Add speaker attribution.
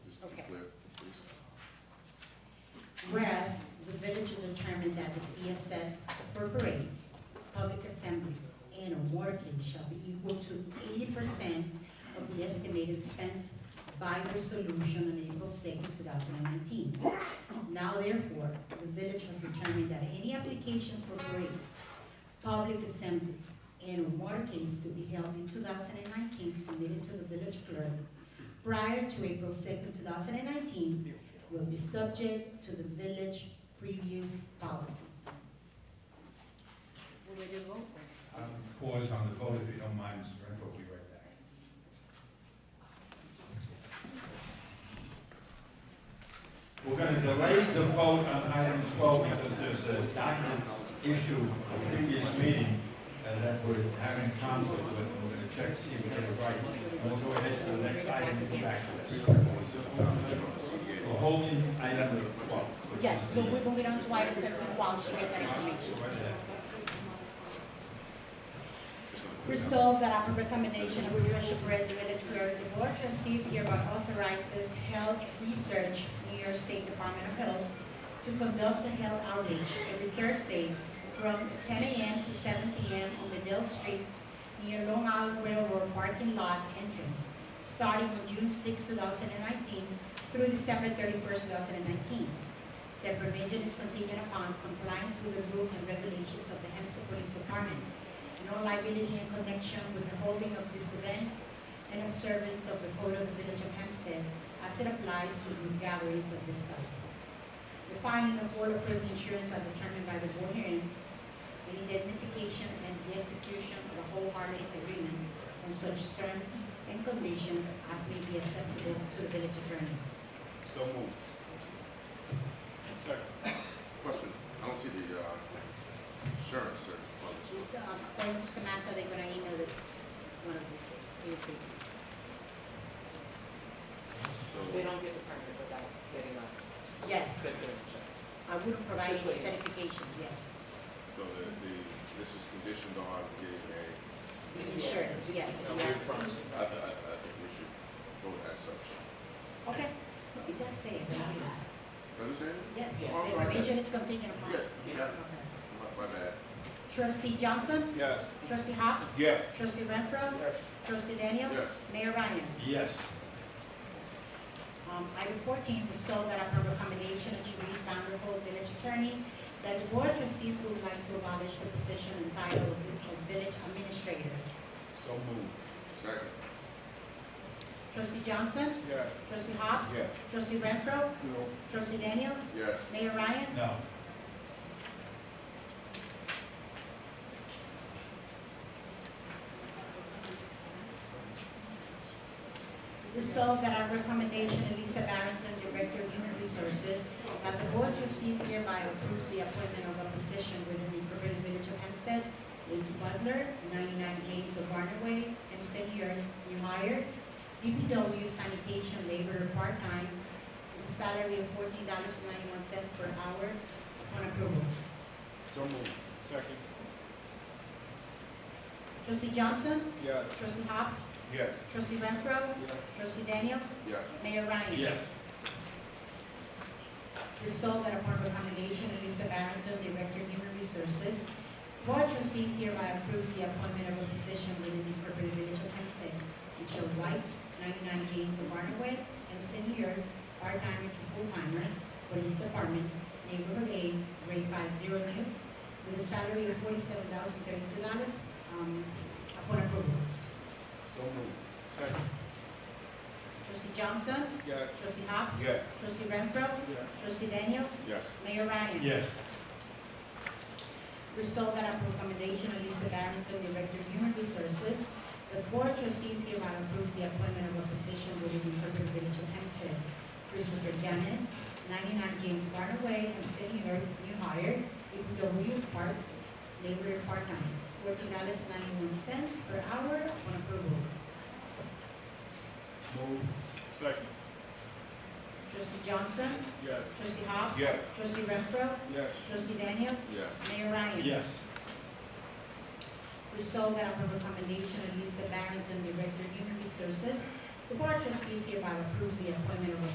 Speaker 1: assessed for parades, public assemblies, and awarding shall be equal to eighty percent of the estimated expense by resolution on April second, two thousand and nineteen. Now therefore, the village has determined that any applications for parades, public assemblies, and awardings to be held in two thousand and nineteen submitted to the village clerk prior to April second, two thousand and nineteen will be subject to the village previous policy.
Speaker 2: Will we do vote?
Speaker 3: I'm gonna pause on the vote if you don't mind, Mr. Renfro, we'll be right back. We're gonna delay the vote on item twelve because there's a document issue from the previous meeting uh, that we're having conflict with, and we're gonna check, see if we get it right. And we'll go ahead to the next item and come back to this. We're holding item number twelve. which
Speaker 1: Yes,
Speaker 3: is
Speaker 1: so
Speaker 3: the-
Speaker 1: we're moving on to item thirteen while she gets that information. Resolved that upon recommendation of Joshua Perez, village clerk, the board of trustees hereby authorizes health research, New York State Department of Health, to conduct a health outreach every Thursday from ten AM to seven PM on Medill Street near Long Island Railroad parking lot entrance, starting on June 6, thousand and nineteen through December thirty-first, two thousand and nineteen. Said provision is contingent upon compliance with the rules and regulations of the Hempstead Police Department. No liability in connection with the holding of this event and observance of the code of the village of Hempstead as it applies to group gatherings of this type. The finding of all approved insurance are determined by the board hearing and identification and the execution of a whole harmonious agreement on such terms and conditions as may be acceptable to the village attorney.
Speaker 4: So moved. Second.
Speaker 5: Question, I don't see the, uh, insurance, sir. on this.
Speaker 1: Just, um, according to Samantha, they're gonna email it one of these days, ASAP.
Speaker 5: So,
Speaker 2: They don't get the permit without getting us
Speaker 1: Yes,
Speaker 2: good credentials.
Speaker 1: I would provide
Speaker 2: Just
Speaker 1: you
Speaker 2: wait.
Speaker 1: certification, yes.
Speaker 5: so the, the, this is conditioned on getting a,
Speaker 1: Insurance, yes,
Speaker 5: Okay,
Speaker 1: yeah.
Speaker 5: I, I, I think we should vote as such.
Speaker 1: Okay, it does say it, right?
Speaker 5: Does it say? it?
Speaker 1: yes,
Speaker 2: Yes.
Speaker 1: yes,
Speaker 5: Alright.
Speaker 1: region is contingent upon.
Speaker 5: Yeah, yeah,
Speaker 1: Okay.
Speaker 5: my, my bad.
Speaker 1: Trustee Johnson,
Speaker 4: Yes.
Speaker 1: trustee Hobbs,
Speaker 5: Yes.
Speaker 1: trustee Renfro,
Speaker 4: Yes.
Speaker 1: trustee Daniels,
Speaker 5: Yes.
Speaker 1: mayor Ryan.
Speaker 3: Yes.
Speaker 1: Um, Item fourteen, resolve that upon recommendation of Sharice Vanderhold, village attorney, that the board of trustees would like to abolish the position and title of of village administrator.
Speaker 4: So moved.
Speaker 5: Second,
Speaker 1: Trustee Johnson,
Speaker 4: Yes.
Speaker 1: trustee Hobbs,
Speaker 4: Yes.
Speaker 1: trustee Renfro,
Speaker 4: No.
Speaker 1: trustee Daniels,
Speaker 5: yes.
Speaker 1: mayor Ryan.
Speaker 3: No.
Speaker 1: Resolved that our recommendation, Elisa Barrington, Director of Human Resources, that the Board of Trustees hereby approves the appointment of a position within the Incorporated Village of Hempstead, Lady Butler, 99 James of Barnard Way, Hempstead, New York, new hire, DPW sanitation laborer, part-time, with a salary of $14.91 per hour upon approval.
Speaker 4: So moved. Second.
Speaker 1: Trustee Johnson,
Speaker 4: Yes.
Speaker 1: trustee Hobbs,
Speaker 5: Yes.
Speaker 1: trustee Renfro,
Speaker 4: Yes.
Speaker 1: trustee Daniels,
Speaker 5: Yes.
Speaker 1: mayor Ryan.
Speaker 3: Yes.
Speaker 1: Resolved that upon recommendation of Lisa Barrington, Director of Human Resources, Board of Trustees hereby approves the appointment of a position within the Incorporated Village of Hempstead, Michelle White, 99 James of Barnaway, Hempstead, New York, part-timer to full-timer, Police Department, Neighborhood A, grade 50 new, with a salary of $47,032 um, upon approval.
Speaker 4: So moved. Second.
Speaker 1: Trustee Johnson,
Speaker 4: Yes.
Speaker 1: trustee Hobbs,
Speaker 5: Yes.
Speaker 1: trustee Renfro,
Speaker 4: Yes.
Speaker 1: trustee Daniels,
Speaker 5: Yes.
Speaker 1: Mayor Ryan.
Speaker 3: Yes.
Speaker 1: Resolved that upon recommendation of Lisa Barrington, Director of Human Resources, the Board of Trustees hereby approves the appointment of a position within the Incorporated Village of Hempstead. Christopher Janis, 99 James Barnard Way, Hempstead, New York, new hire, DPW Parks, laborer part-time, $14.91 per hour upon approval.
Speaker 4: Moved. Second.
Speaker 1: Trustee Johnson,
Speaker 4: Yes.
Speaker 1: trustee Hobbs.
Speaker 5: Yes.
Speaker 1: Trustee Renfro,
Speaker 4: Yes.
Speaker 1: trustee Daniels,
Speaker 5: Yes.
Speaker 1: Mayor Ryan.
Speaker 3: Yes.
Speaker 1: Resolved that upon recommendation of Lisa Barrington, Director of Human Resources, the Board of Trustees hereby approves the appointment of a